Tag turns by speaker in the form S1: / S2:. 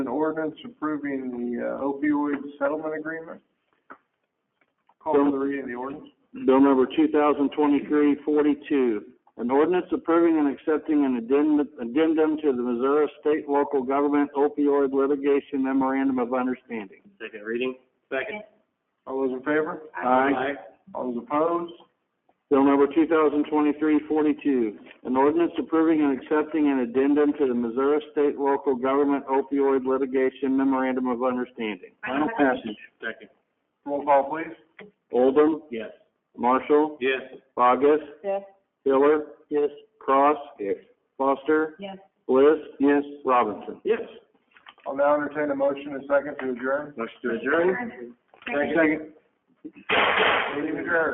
S1: ordinance approving the uh, opioid settlement agreement. Call for the reading of the ordinance.
S2: Bill number 2023-42, an ordinance approving and accepting an addendum, addendum to the Missouri State Local Government Opioid Litigation Memorandum of Understanding.
S3: Second reading? Second.
S1: All those in favor?
S2: Aye.
S1: All those opposed?
S2: Bill number 2023-42, an ordinance approving and accepting an addendum to the Missouri State Local Government Opioid Litigation Memorandum of Understanding. Final passage.
S3: Second.
S1: Roll call, please.
S2: Oldham,
S3: Yes.
S2: Marshall,
S3: Yes.
S2: Bogus,
S4: Yes.
S2: Hiller. Yes. Cross. Yes. Foster.
S4: Yes.
S2: Bliss. Yes. Robinson.
S3: Yes.
S1: I'll now entertain a motion and second to adjourn.
S3: Motion to adjourn?
S1: Second. Meeting adjourned.